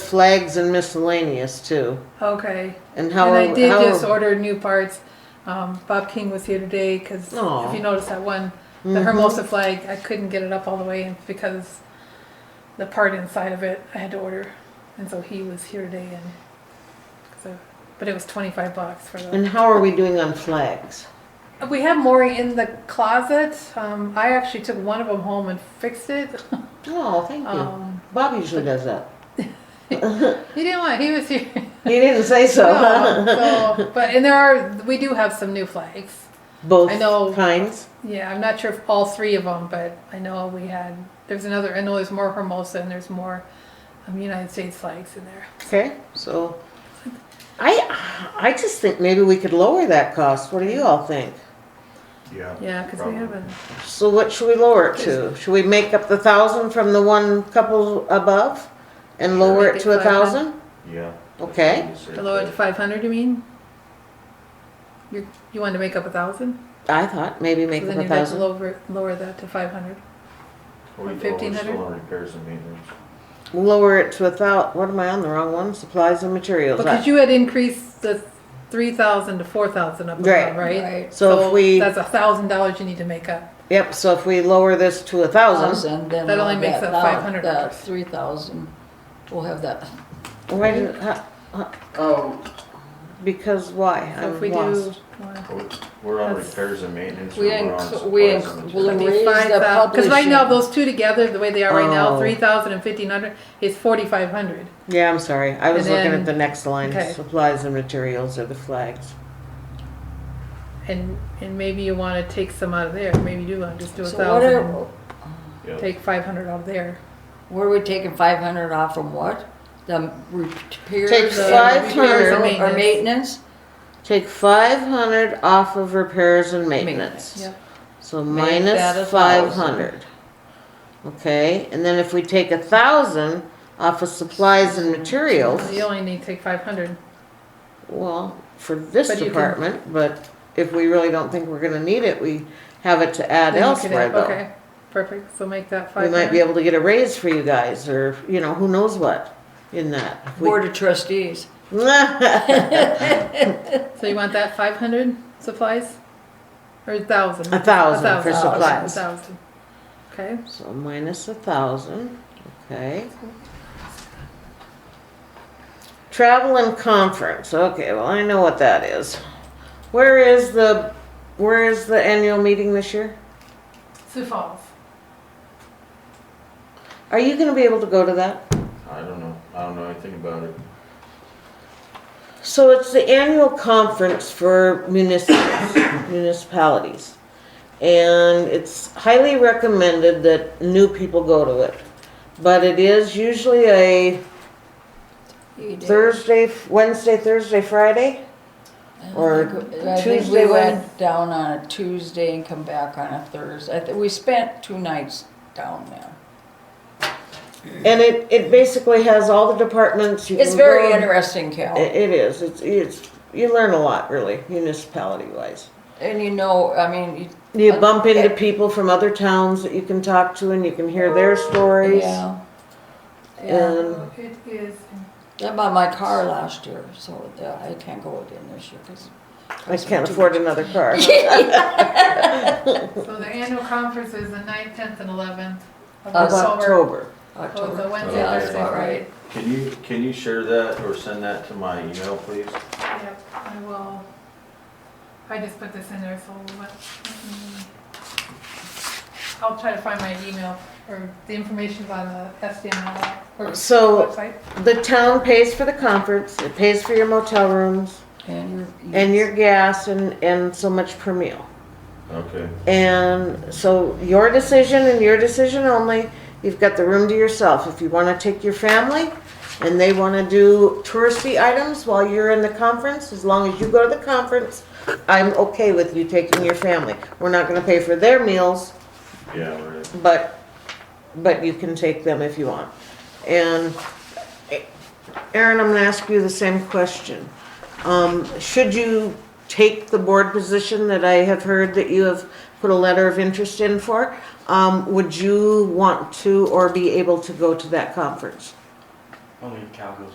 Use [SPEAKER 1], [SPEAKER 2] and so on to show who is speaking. [SPEAKER 1] flags and miscellaneous too.
[SPEAKER 2] Okay.
[SPEAKER 1] And how
[SPEAKER 2] And
[SPEAKER 1] are,
[SPEAKER 2] I did
[SPEAKER 1] how
[SPEAKER 2] just
[SPEAKER 1] are,
[SPEAKER 2] order new parts. Um, Bob King was here today because
[SPEAKER 1] Aw. Mm-hmm.
[SPEAKER 2] if you notice that one, the
[SPEAKER 1] Mhm.
[SPEAKER 2] Hermosa flag, I couldn't get it up all the way because the part inside of it I had to order, and so he was here today and so. But it was twenty five bucks for the.
[SPEAKER 1] and how are we doing on flags?
[SPEAKER 2] We have more in the closet. Um, I actually took one of them home and fixed it.
[SPEAKER 1] Oh, thank you.
[SPEAKER 2] Um,
[SPEAKER 1] Bob usually does that.
[SPEAKER 2] he didn't want. He was here.
[SPEAKER 1] He didn't say so.
[SPEAKER 2] No, so, but and there are we do have some new flags.
[SPEAKER 1] Both
[SPEAKER 2] I know.
[SPEAKER 1] kinds.
[SPEAKER 2] Yeah, I'm not sure if all three of them, but I know we had. There's another. I know there's more Hermosa and there's more um, United States flags in there.
[SPEAKER 1] Okay, so I I just think maybe we could lower that cost. What do you all think?
[SPEAKER 3] Yeah.
[SPEAKER 2] Yeah, because we
[SPEAKER 3] probably.
[SPEAKER 2] haven't.
[SPEAKER 1] So what should we lower it to? Should we make up the thousand from the one couple above and lower it to a thousand?
[SPEAKER 3] Yeah.
[SPEAKER 1] Okay.
[SPEAKER 2] To lower it to 500, you mean? You you wanted to make up a thousand?
[SPEAKER 1] I thought maybe
[SPEAKER 2] So
[SPEAKER 1] make
[SPEAKER 2] then
[SPEAKER 1] up a
[SPEAKER 2] you'd have to
[SPEAKER 1] thousand.
[SPEAKER 2] lower lower that to 500.
[SPEAKER 3] Or you go, we're
[SPEAKER 2] 1500?
[SPEAKER 3] still on repairs and maintenance.
[SPEAKER 1] Lower it to a thou, what am I on, the wrong one? Supplies and materials.
[SPEAKER 2] Because you had increased the 3,000 to 4,000 up
[SPEAKER 1] Right.
[SPEAKER 2] above, right?
[SPEAKER 4] Right.
[SPEAKER 1] So if we-
[SPEAKER 2] That's a thousand dollars you need to make up.
[SPEAKER 1] Yep, so if we lower this to a thousand,
[SPEAKER 4] thousand, then
[SPEAKER 2] That
[SPEAKER 4] we'll
[SPEAKER 2] only
[SPEAKER 4] have
[SPEAKER 2] makes
[SPEAKER 4] that
[SPEAKER 2] up
[SPEAKER 4] thou-
[SPEAKER 2] $500.
[SPEAKER 4] That three thousand, we'll have that,
[SPEAKER 1] why did, huh,
[SPEAKER 5] Oh,
[SPEAKER 1] because why?
[SPEAKER 2] So if
[SPEAKER 1] I'm
[SPEAKER 2] we do,
[SPEAKER 1] lost.
[SPEAKER 3] We're- Oh, We're on
[SPEAKER 2] That's-
[SPEAKER 3] repairs and maintenance.
[SPEAKER 4] we
[SPEAKER 3] and we're on
[SPEAKER 4] inc- we
[SPEAKER 3] supplies
[SPEAKER 4] inc-
[SPEAKER 3] and
[SPEAKER 4] we'll
[SPEAKER 3] materials.
[SPEAKER 4] Raise the
[SPEAKER 2] because right now
[SPEAKER 4] publishing.
[SPEAKER 2] those two together, the way they are right now,
[SPEAKER 1] Oh.
[SPEAKER 2] 3,000 and 1,500 is 4,500.
[SPEAKER 1] Yeah, I'm sorry, I was
[SPEAKER 2] And
[SPEAKER 1] looking
[SPEAKER 2] then-
[SPEAKER 1] at the next line,
[SPEAKER 2] okay.
[SPEAKER 1] supplies and materials are the flags.
[SPEAKER 2] And, and maybe you wanna take some out of there, maybe you do wanna just do a
[SPEAKER 4] so what
[SPEAKER 2] thousand, and
[SPEAKER 4] are,
[SPEAKER 3] Yeah.
[SPEAKER 2] take five hundred out of there.
[SPEAKER 4] were we taking five hundred off from what? The repairs?
[SPEAKER 1] Take
[SPEAKER 4] and-
[SPEAKER 1] five
[SPEAKER 2] repairs and
[SPEAKER 1] hundred,
[SPEAKER 4] Or maintenance?
[SPEAKER 1] take five hundred off of repairs and maintenance.
[SPEAKER 2] Yeah,
[SPEAKER 1] So
[SPEAKER 4] Make that a
[SPEAKER 1] minus five
[SPEAKER 4] thousand.
[SPEAKER 1] hundred. Okay, and then if we take a thousand off of supplies and materials,
[SPEAKER 2] you only need to take five hundred,
[SPEAKER 1] well, for this
[SPEAKER 2] But you can-
[SPEAKER 1] department, but if we really don't think we're gonna need it, we have it to add elsewhere though.
[SPEAKER 2] Okay, perfect, so make that
[SPEAKER 1] We
[SPEAKER 2] five
[SPEAKER 1] might be
[SPEAKER 2] hundred.
[SPEAKER 1] able to get a raise for you guys, or, you know, who knows what in that. We-
[SPEAKER 4] Board of trustees.
[SPEAKER 2] So you want that five hundred supplies? Or a thousand?
[SPEAKER 1] A thousand for
[SPEAKER 2] thousand,
[SPEAKER 1] supplies.
[SPEAKER 2] A thousand, okay,
[SPEAKER 1] So minus a thousand, okay. Travel and conference, okay, well, I know what that is. Where is the, where is the annual meeting this year?
[SPEAKER 2] Sioux Falls.
[SPEAKER 1] Are you gonna be able to go to that?
[SPEAKER 3] I don't know. I don't know anything about it.
[SPEAKER 1] So it's the annual conference for municipalities, municipalities. And it's highly recommended that new people go to it. But it is usually a
[SPEAKER 4] You did.
[SPEAKER 1] Thursday, Wednesday, Thursday, Friday? or
[SPEAKER 4] I think- I think
[SPEAKER 1] Tuesday
[SPEAKER 4] we
[SPEAKER 1] when-
[SPEAKER 4] went down on a Tuesday and come back on a Thursday. I thi- We spent two nights down there.
[SPEAKER 1] And it, it basically has all the departments. You
[SPEAKER 4] It's
[SPEAKER 1] can
[SPEAKER 4] very
[SPEAKER 1] go-
[SPEAKER 4] interesting, Cal.
[SPEAKER 1] It, it is. It's, it's, you learn a lot, really, municipality wise.
[SPEAKER 4] And you know, I mean, you-
[SPEAKER 1] You bump into
[SPEAKER 4] Okay.
[SPEAKER 1] people from other towns that you can talk to and you can hear their stories.
[SPEAKER 4] yeah. Yeah,
[SPEAKER 1] And
[SPEAKER 2] It is.
[SPEAKER 4] I bought my car last year, so yeah, I can't go again this year because.
[SPEAKER 1] I can't afford another car.
[SPEAKER 2] So the annual conference is the ninth, tenth, and eleventh of
[SPEAKER 4] Of
[SPEAKER 1] Of
[SPEAKER 2] October.
[SPEAKER 1] October.
[SPEAKER 2] So it's a
[SPEAKER 4] October.
[SPEAKER 2] Oh, Wednesday,
[SPEAKER 3] Yeah, that's
[SPEAKER 2] Thursday,
[SPEAKER 4] about
[SPEAKER 2] Friday.
[SPEAKER 4] right.
[SPEAKER 3] Can you, can you share that or send that to my email, please?
[SPEAKER 2] Yep, I will. I just put this in there, so let me, I'll try to find my email or the information's on the SDML or
[SPEAKER 1] So-
[SPEAKER 2] website.
[SPEAKER 1] The town pays for the conference, it pays for your motel rooms
[SPEAKER 4] And your.
[SPEAKER 1] and your gas and, and so much per meal.
[SPEAKER 3] Okay.
[SPEAKER 1] And so your decision and your decision only. You've got the room to yourself. If you want to take your family and they want to do touristy items while you're in the conference, as long as you go to the conference, I'm okay with you taking your family. We're not going to pay for their meals,
[SPEAKER 3] Yeah, right.
[SPEAKER 1] but but you can take them if you want. And Aaron, I'm going to ask you the same question. Um, should you take the board position that I have heard that you have put a letter of interest in for? Um, would you want to or be able to go to that conference?
[SPEAKER 5] Only Calgo's